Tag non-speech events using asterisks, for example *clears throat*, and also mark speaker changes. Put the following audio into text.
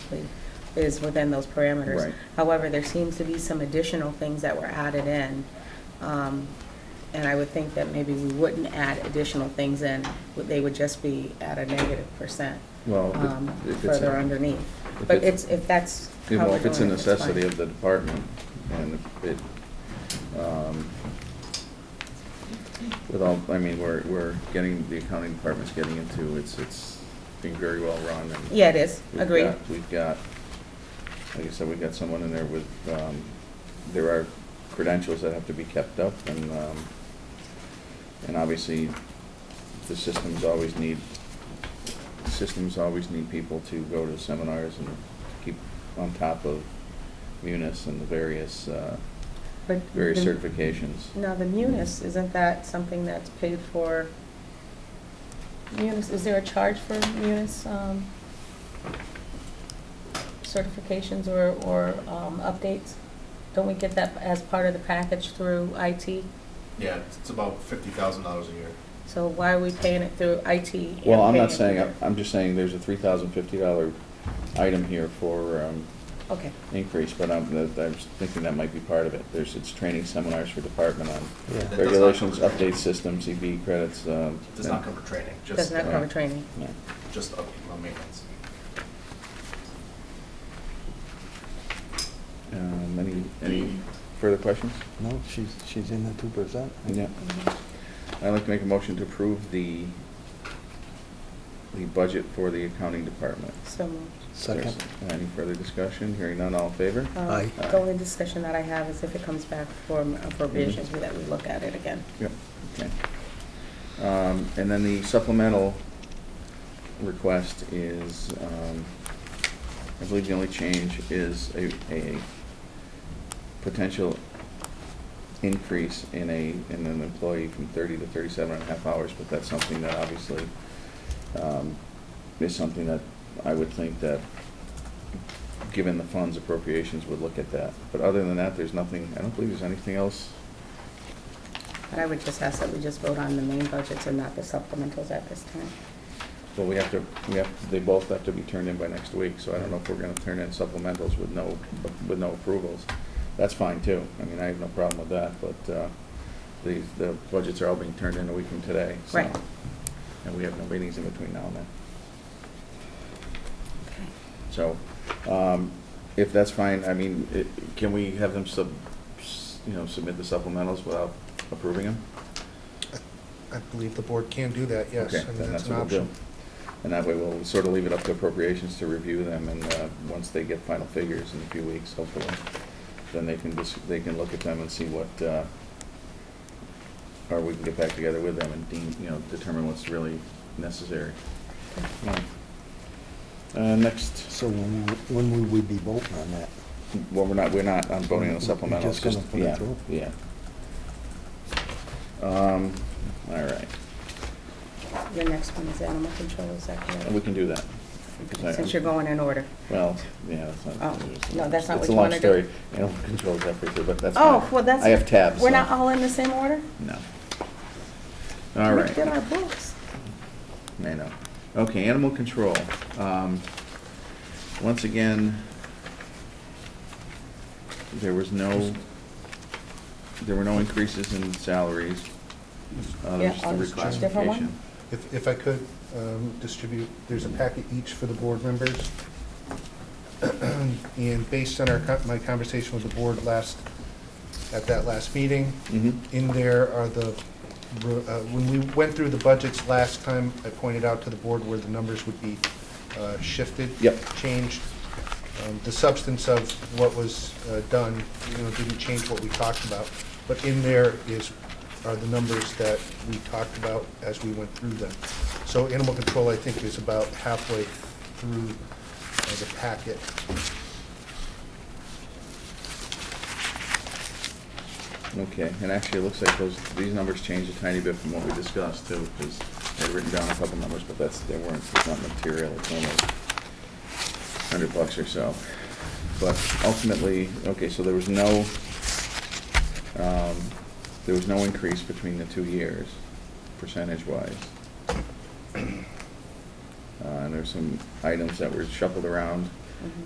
Speaker 1: actually is within those parameters.
Speaker 2: Right.
Speaker 1: However, there seems to be some additional things that were added in. um, And I would think that maybe we wouldn't add additional things in, but they would just be at a negative percent
Speaker 2: Well, if-
Speaker 1: um,
Speaker 2: if it's
Speaker 1: further
Speaker 2: a-
Speaker 1: underneath.
Speaker 2: if
Speaker 1: But
Speaker 2: it's-
Speaker 1: it's, if that's
Speaker 2: Yeah,
Speaker 1: how
Speaker 2: Well,
Speaker 1: we're
Speaker 2: if it's a
Speaker 1: doing it, that's
Speaker 2: necessity
Speaker 1: fine.
Speaker 2: of the department, and it, um, with all, I mean, we're, we're getting, the accounting department's getting into, it's, it's being very well run and.
Speaker 1: Yeah, it is,
Speaker 2: we've
Speaker 1: agreed.
Speaker 2: got- We've got, like I said, we've got someone in there with, um, there are credentials that have to be kept up and, um, and obviously, the systems always need, systems always need people to go to seminars and keep on top of munis and the various, uh,
Speaker 1: But
Speaker 2: various
Speaker 1: the-
Speaker 2: certifications.
Speaker 1: Now, the munis, isn't that something that's paid for? Munis, is there a charge for munis um, certifications or, or um, updates? Don't we get that as part of the package through IT?
Speaker 3: Yeah, it's- it's about fifty thousand dollars a year.
Speaker 1: So why are we paying it through IT? and
Speaker 2: Well, I'm
Speaker 1: paying
Speaker 2: not
Speaker 1: it
Speaker 2: saying,
Speaker 1: through-
Speaker 2: I'm just saying there's a three thousand fifty dollar item here for, um,
Speaker 1: Okay,
Speaker 2: increase, but I'm, that- I'm thinking that might be part of it. There's, it's training seminars for department on
Speaker 4: Yeah. That does
Speaker 3: not
Speaker 2: regulations,
Speaker 3: cover training.
Speaker 2: update systems, EB credits, um.
Speaker 3: It Does not cover training,
Speaker 1: does
Speaker 3: just,
Speaker 1: not
Speaker 2: uh,
Speaker 1: cover training.
Speaker 2: yeah.
Speaker 3: just up on maintenance.
Speaker 2: Um, any, any further questions?
Speaker 4: No, she's, she's in the two percent.
Speaker 2: Yeah. I'd like to make a motion to approve the, the budget for the accounting department.
Speaker 1: So moved.
Speaker 4: Second.
Speaker 2: There's- uh, Any further discussion? Hearing none, all in favor?
Speaker 1: Um,
Speaker 4: Aye.
Speaker 1: The only discussion that I have is if it comes back for
Speaker 2: Mm-hmm.
Speaker 1: for revisions, that we look at it again.
Speaker 2: Yep, okay. Um, And then the supplemental request is, um, I believe the only change is a, a potential increase in a, in an employee from thirty to thirty-seven and a half hours, but that's something that obviously um, is something that I would think that, given the funds appropriations, would look at that. But other than that, there's nothing, I don't believe there's anything else
Speaker 1: But I would just ask that we just vote on the main budgets and not the supplementals at this time.
Speaker 2: Well, we have to, we have, they both have to be turned in by next week, so I don't know if we're gonna turn in supplementals with no, with no approvals. That's fine too, I mean, I have no problem with that, but, uh, the, the budgets are all being turned in a week from today, so.
Speaker 1: Right.
Speaker 2: And we have no meetings in between now and then.
Speaker 1: Okay.
Speaker 2: So, um, if that's fine, I mean, it, can we have them sub, s- you know, submit the supplementals without approving them?
Speaker 5: I believe the board can do that, yes.
Speaker 2: Okay,
Speaker 5: and
Speaker 2: then that's
Speaker 5: an
Speaker 2: what we'll do.
Speaker 5: option.
Speaker 2: And that way, we'll sort of leave it up to appropriations to review them, and uh, once they get final figures in a few weeks, hopefully, then they can just, they can look at them and see what, uh, or we can get back together with them and deem, you know, determine what's really necessary. Uh, Next,
Speaker 4: So when, we- when would we be voting on that?
Speaker 2: well, we're not, we're not on voting on the
Speaker 4: We're
Speaker 2: supplemental.
Speaker 4: just gonna put it through.
Speaker 2: Yeah, yeah. Um, All right,
Speaker 1: Your next one is animal control, is that
Speaker 2: we
Speaker 1: correct?
Speaker 2: can do that. because I-
Speaker 1: Since you're going in order.
Speaker 2: Well, yeah, that's not.
Speaker 1: Oh, no, that's not
Speaker 2: It's
Speaker 1: what
Speaker 2: a
Speaker 1: you
Speaker 2: long
Speaker 1: wanna do.
Speaker 2: story. Animal control is up here, but that's.
Speaker 1: Oh,
Speaker 2: fine.
Speaker 1: well, that's.
Speaker 2: I have tabs.
Speaker 1: We're
Speaker 2: so-
Speaker 1: not all in the same order?
Speaker 2: No. All
Speaker 1: We did our
Speaker 2: right.
Speaker 1: books.
Speaker 2: I know. Okay, animal control. Um, Once again, there was no, there were no increases in salaries. Uh, there
Speaker 1: Yeah,
Speaker 2: was just a
Speaker 1: on this different
Speaker 2: reclassification.
Speaker 1: one?
Speaker 5: If, if I could um, distribute, there's a packet each for the board members. *clears throat* And based on our, co- my conversation with the board last, at that last meeting,
Speaker 2: Mhm.
Speaker 5: in there are the, uh, when we went through the budgets last time, I pointed out to the board where the numbers would be uh, shifted.
Speaker 2: Yep.
Speaker 5: Changed. Um, The substance of what was uh, done, you know, didn't change what we talked about, but in there is, are the numbers that we talked about as we went through them. So animal control, I think, is about halfway through uh, the packet.
Speaker 2: Okay, and actually, it looks like those, these numbers changed a tiny bit from what we discussed too, because I had written down a couple numbers, but that's, they weren't, it's not material, it's only hundred bucks or so. But ultimately, okay, so there was no, um, there was no increase between the two years, percentage-wise. Uh, and there's some items that were shuffled around